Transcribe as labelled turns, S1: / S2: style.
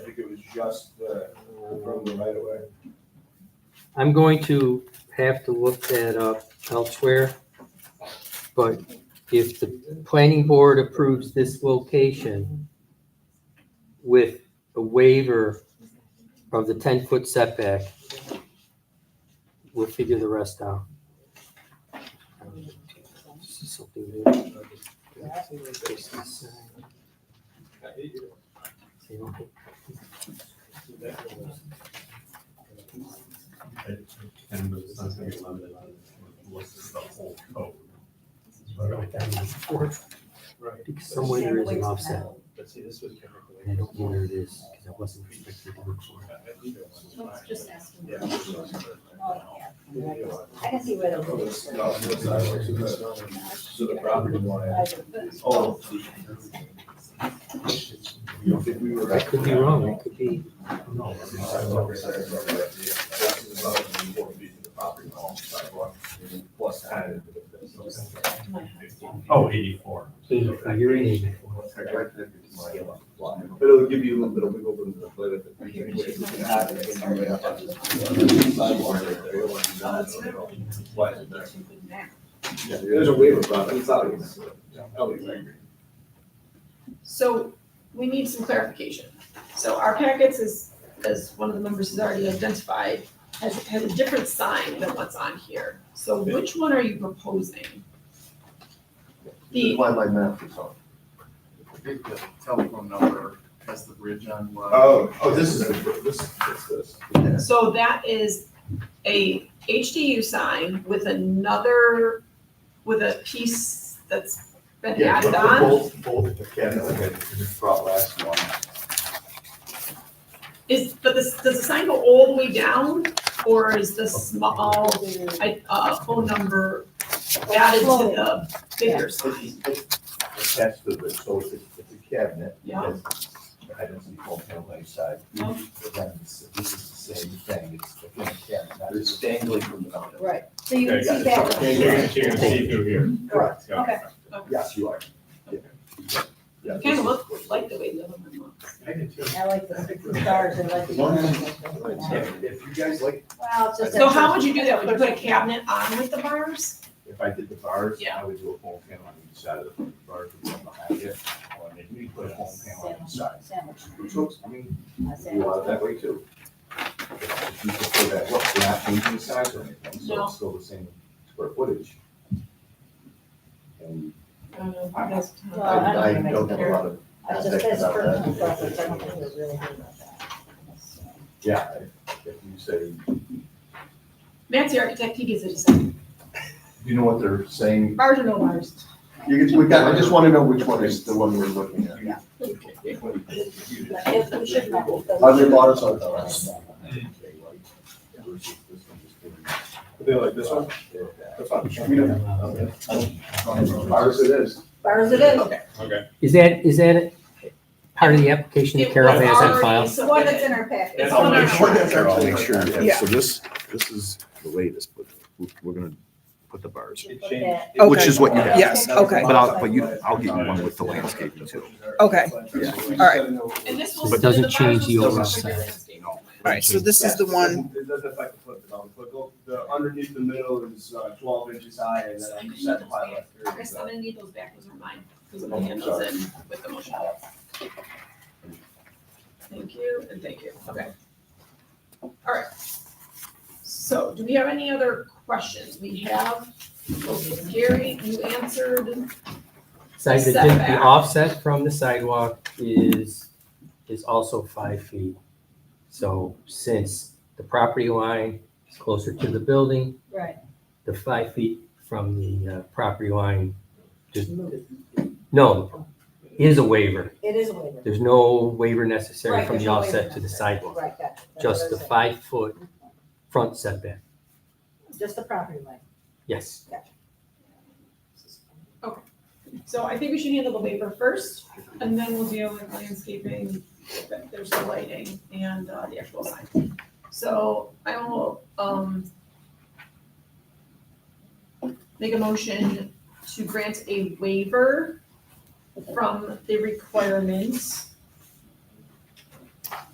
S1: just the, from the right of way?
S2: I'm going to have to look that up elsewhere. But if the planning board approves this location with a waiver of the ten-foot setback, we'll figure the rest out. This is something new. This is, uh, they don't have-
S3: And it's not gonna be limited unless it's the whole code.
S2: write down this fourth,
S3: Right.
S2: because Somewhere there is an offset,
S3: But see, this was.
S2: and I don't know where it is, because I wasn't expecting to look for it.
S4: Let's just ask them.
S3: Yeah.
S4: I can see where
S1: From
S4: they'll.
S1: the south to the sidewalk to the- to the property line. Oh. You don't think we were.
S2: I could be wrong, it could be,
S3: No.
S1: Sidewalk, sidewalk, right, yeah. That's the amount of the four feet to the property line, sidewalk, Plus added.
S3: Oh, eighty-four.
S2: you're in it.
S1: But it'll give you a little bit of wiggle room to play with. it. You can add it in there, yeah. Sidewalk right there, you want to add it, you know, why is it there? Yeah, There's a waiver problem, it's not. Oh, exactly.
S5: So we need some clarification. So our packets is, as one of the members has already identified, has, has a different sign than what's on here. So which one are you proposing? The,
S1: Apply my math or something.
S6: I think the telephone number has the bridge on. one.
S7: Uh,
S1: Oh, oh, this is, this, this, this.
S5: so that is a HDU sign with another, with a piece that's been
S6: Yeah,
S5: added
S6: but
S5: on?
S6: Both, both the
S1: Yeah,
S6: cabinets.
S1: that's okay, just brought last one.
S5: Is, but this, does the sign go all the way down, or is the small, I, uh, phone number added to the bigger sign?
S1: Attached to it, so it's, it's a cabinet.
S5: Yeah.
S1: I don't see full panel inside.
S5: Yeah.
S1: But then it's- This is the same thing, it's the cabinet. It's dangling from the mountain.
S4: Right, so you can
S3: Okay, got it.
S4: see that.
S3: So You're gonna, you're gonna see through here.
S1: Correct.
S4: Okay.
S1: Yes, you are. Yeah.
S5: Kind of looks like the way the other one looks.
S3: I did too.
S4: I like the stars and like the.
S1: If if you guys like,
S4: Well, it's just.
S5: So how would you do that? Would you put a cabinet on with the bars?
S1: if I did the bars,
S5: Yeah.
S1: I would do a full panel on each side of the front bar, the one behind it. Or maybe you put a full panel on each side.
S4: Sandwich.
S1: Which looks, I mean,
S4: A
S1: you
S4: sandwich.
S1: want it that way too. If you prefer that, look, we're not changing the size or anything, so
S5: No.
S1: it's still the same square footage. And
S4: Well,
S1: I,
S4: I don't
S1: I
S4: think it makes
S1: don't have a lot of
S4: I just,
S1: aspects
S4: that's
S1: about that.
S4: personal preference, I don't think we're really good about that. So,
S1: Yeah, if if you say,
S5: Matt's the architect, he gives it a design.
S1: you know what they're saying,
S5: Bars or no bars?
S1: you, can- we got, I just wanna know which one is the one we're looking at.
S4: but if we should not, because-
S1: Are there bars on the last one? They like this one? Ours it is.
S4: Bars it is.
S5: Okay.
S3: Okay.
S2: Is that, is that a- part of the application that
S5: It
S2: Carol
S5: was
S2: has on
S5: already
S2: file?
S4: It's the one that's in our packet.
S5: It's
S3: I'll
S5: on our
S3: make sure
S5: side.
S3: that they're all-
S7: Make sure, yeah,
S8: Yeah.
S7: so this, this is the latest, but we- we're gonna put the bars,
S4: You put that-
S7: which is what you have.
S8: Yes, okay.
S7: But I'll, but you, I'll get you one with the landscaping too.
S8: Okay,
S7: Yeah.
S8: all right,
S5: And this will.
S2: But doesn't
S5: the bars
S2: change the
S5: will still
S2: overall
S5: look like
S2: size.
S5: landscape.
S8: all right, so this is the one,
S1: It doesn't affect the foot development. The underneath the middle is uh, twelve inches high and then I'm set to five left.
S5: I guess I'm gonna need those back, those are mine, because I'm gonna hand those in with the motion. Thank you, and thank you, okay. All right. So, do we have any other questions? We have, Gary, you answered,
S2: So the, the
S5: Setback.
S2: offset from the sidewalk is, is also five feet. So since the property line is closer to the building,
S4: Right,
S2: the five feet from the uh, property line, just, no, is a waiver.
S4: it is a waiver.
S2: There's no waiver necessary
S4: Right,
S2: from
S4: there's
S2: the
S4: no waiver
S2: offset to the
S4: necessary.
S2: sidewalk,
S4: Right, gotcha. That's
S2: just the
S4: what I was
S2: five foot front setback.
S4: saying. Just the property line.
S2: Yes,
S5: so I think we should handle the waiver first, and then we'll deal with landscaping, that there's the lighting and uh, the actual sign. So, I will, um, make a motion to grant a waiver from the requirements